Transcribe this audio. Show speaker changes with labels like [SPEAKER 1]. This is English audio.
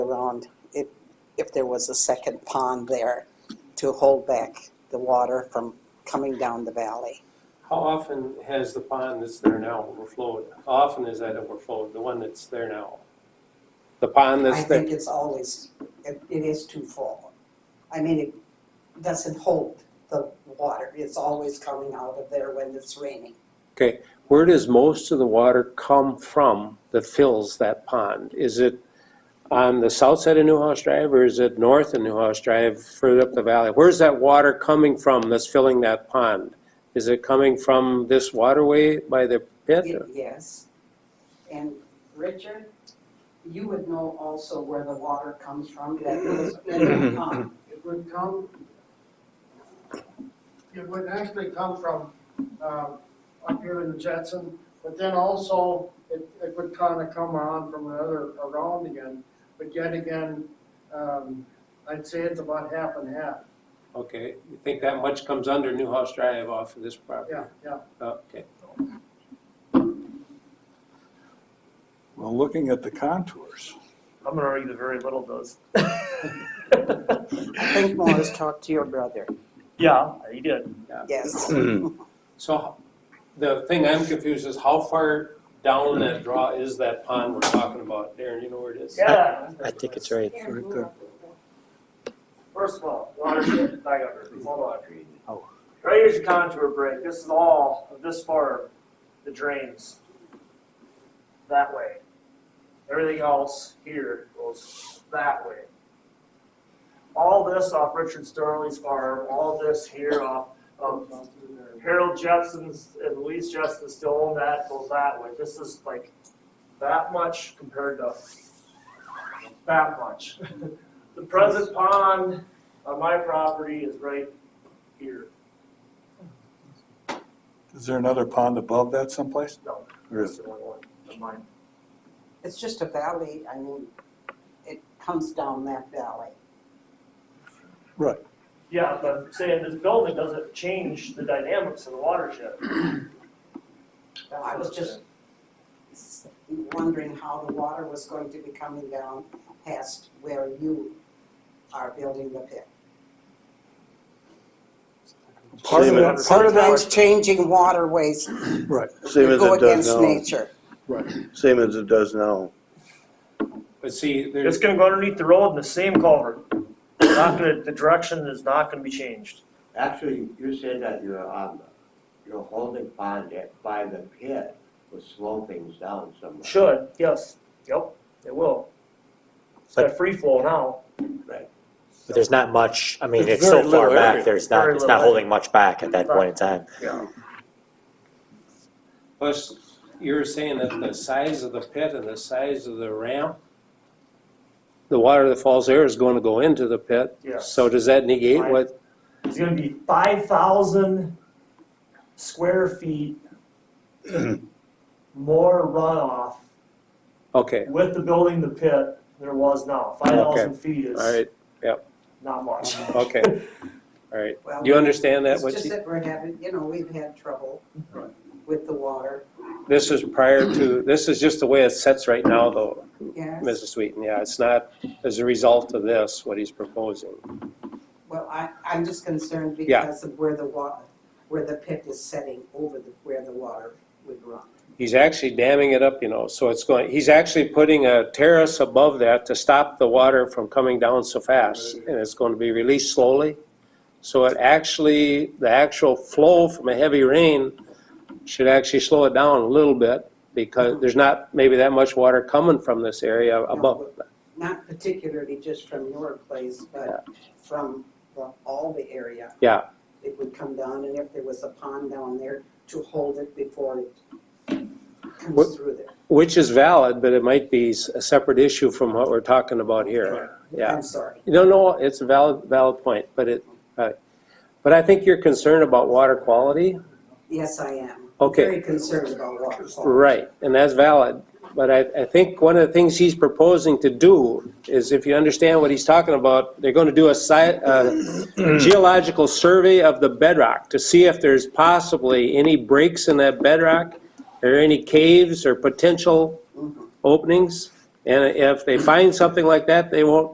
[SPEAKER 1] around if, if there was a second pond there to hold back the water from coming down the valley.
[SPEAKER 2] How often has the pond that's there now overflowed? How often is that overflowed, the one that's there now? The pond
[SPEAKER 1] I
[SPEAKER 2] that's there?
[SPEAKER 1] think it's always, it it is too full. I mean, it doesn't hold the water, it's always coming out of there when it's raining.
[SPEAKER 2] Okay, where does most of the water come from that fills that pond? Is it on the south side of Newhouse Drive or is it north of Newhouse Drive, further up the valley? Where's that water coming from that's filling that pond? Is it coming from this waterway by the pit?
[SPEAKER 1] It- Yes. And Richard, you would know also where the water comes from, that goes in the pond.
[SPEAKER 3] It would come, it would actually come from, um, up here in the Jetson, but then also it, it would kind of come around from the other, around again. But yet again, um, I'd say it's about half and half.
[SPEAKER 2] Okay, you think that much comes under Newhouse Drive off of this property? Oh,
[SPEAKER 3] Yeah, yeah.
[SPEAKER 2] Okay.
[SPEAKER 4] Well, looking at the contours,
[SPEAKER 5] I'm gonna argue that very little does.
[SPEAKER 1] I think Morris talked to your brother.
[SPEAKER 5] Yeah, he did.
[SPEAKER 1] Yes.
[SPEAKER 2] So the thing I'm confused is how far down that draw is that pond we're talking about? Darren, you know where it is?
[SPEAKER 5] Yeah.
[SPEAKER 6] I think it's right.
[SPEAKER 4] right there.
[SPEAKER 5] First of all, watershed, back up, here. hold on.
[SPEAKER 4] Oh.
[SPEAKER 5] Right here's your contour break, this is all, of this far, the drains. That way. Everything else here goes that way. All this off Richard Sterling's farm, all this here off of Harold Jepson's and Louise Jepson still own that, goes that way. This is like that much compared to that much. The present pond on Uh, my property is right here.
[SPEAKER 4] is there another pond above that someplace?
[SPEAKER 5] No.
[SPEAKER 4] There is.
[SPEAKER 5] That's the only one of mine.
[SPEAKER 1] It's just a valley, I mean, it comes down that valley.
[SPEAKER 4] Right.
[SPEAKER 5] Yeah, but I'm saying this building doesn't change the dynamics of the watershed.
[SPEAKER 1] I was just s- wondering how the water was going to be coming down past where you are building the pit.
[SPEAKER 4] Part of
[SPEAKER 7] Same
[SPEAKER 4] that,
[SPEAKER 7] as-
[SPEAKER 4] part of
[SPEAKER 1] Sometimes
[SPEAKER 4] that,
[SPEAKER 1] changing waterways
[SPEAKER 4] right,
[SPEAKER 7] Same as
[SPEAKER 1] go
[SPEAKER 7] it
[SPEAKER 1] against
[SPEAKER 7] does now.
[SPEAKER 1] nature.
[SPEAKER 7] Same as it does now.
[SPEAKER 2] But see,
[SPEAKER 5] It's
[SPEAKER 2] there's,
[SPEAKER 5] gonna go underneath the road in the same culvert. Not gonna, the direction is not gonna be changed.
[SPEAKER 8] Actually, you said that you're on, the- you're holding pond at- by the pit with slopings down somewhere.
[SPEAKER 5] Should, yes, yep, it will. It's got free flow now.
[SPEAKER 6] But there's not much, I mean,
[SPEAKER 4] It's
[SPEAKER 6] it's so
[SPEAKER 4] very
[SPEAKER 6] far
[SPEAKER 4] little
[SPEAKER 6] back,
[SPEAKER 4] area.
[SPEAKER 6] there's not,
[SPEAKER 5] Very
[SPEAKER 6] it's
[SPEAKER 5] little
[SPEAKER 6] not holding much back at that point in time.
[SPEAKER 2] plus, you're saying that the size of the pit and the size of the ramp, the water that falls there is going to go into the pit.
[SPEAKER 5] Yes.
[SPEAKER 2] So does that negate
[SPEAKER 5] Right.
[SPEAKER 2] what,
[SPEAKER 5] It's gonna be five thousand square feet more runoff
[SPEAKER 2] okay,
[SPEAKER 5] with the building, the pit, there was now. Five thousand feet
[SPEAKER 2] all
[SPEAKER 5] is
[SPEAKER 2] right,
[SPEAKER 5] not much.
[SPEAKER 2] okay, all right.
[SPEAKER 1] Well,
[SPEAKER 2] Do you understand that?
[SPEAKER 1] It's
[SPEAKER 2] what
[SPEAKER 1] just
[SPEAKER 2] you-
[SPEAKER 1] that we're having, you know, we've had trouble with the water,
[SPEAKER 2] This is prior to, this is just the way it sets right now though,
[SPEAKER 1] yes.
[SPEAKER 2] Mrs. Sweeten, yeah, it's not as a result of this, what he's proposing.
[SPEAKER 1] Well, I, I'm just concerned
[SPEAKER 2] Yeah.
[SPEAKER 1] because of where the water, where the pit is setting over the, where the water would run.
[SPEAKER 2] He's actually damming it up, you know, so it's going, he's actually putting a terrace above that to stop the water from coming down so fast, and it's going to be released slowly. So it actually, the actual flow from a heavy rain should actually slow it down a little bit, because there's not maybe that much water coming from this area above.
[SPEAKER 1] Not particularly just from your place, but from the, all the area.
[SPEAKER 2] Yeah.
[SPEAKER 1] It would come down and if there was a pond down there to hold it before it
[SPEAKER 2] What-
[SPEAKER 1] comes through there.
[SPEAKER 2] Which is valid, but it might be s- a separate issue from what we're talking about here, yeah.
[SPEAKER 1] I'm sorry.
[SPEAKER 2] No, no, it's a valid, valid point, but it, uh, but I think you're concerned about water quality.
[SPEAKER 1] Yes, I am.
[SPEAKER 2] Okay,
[SPEAKER 1] Very concerned about water. quality.
[SPEAKER 2] right, and that's valid. But I, I think one of the things he's proposing to do is if you understand what he's talking about, they're going to do a sci- a geological survey of the bedrock to see if there's possibly any breaks in that bedrock or any caves or potential
[SPEAKER 1] Mhm.
[SPEAKER 2] openings. And if they find something like that, they won't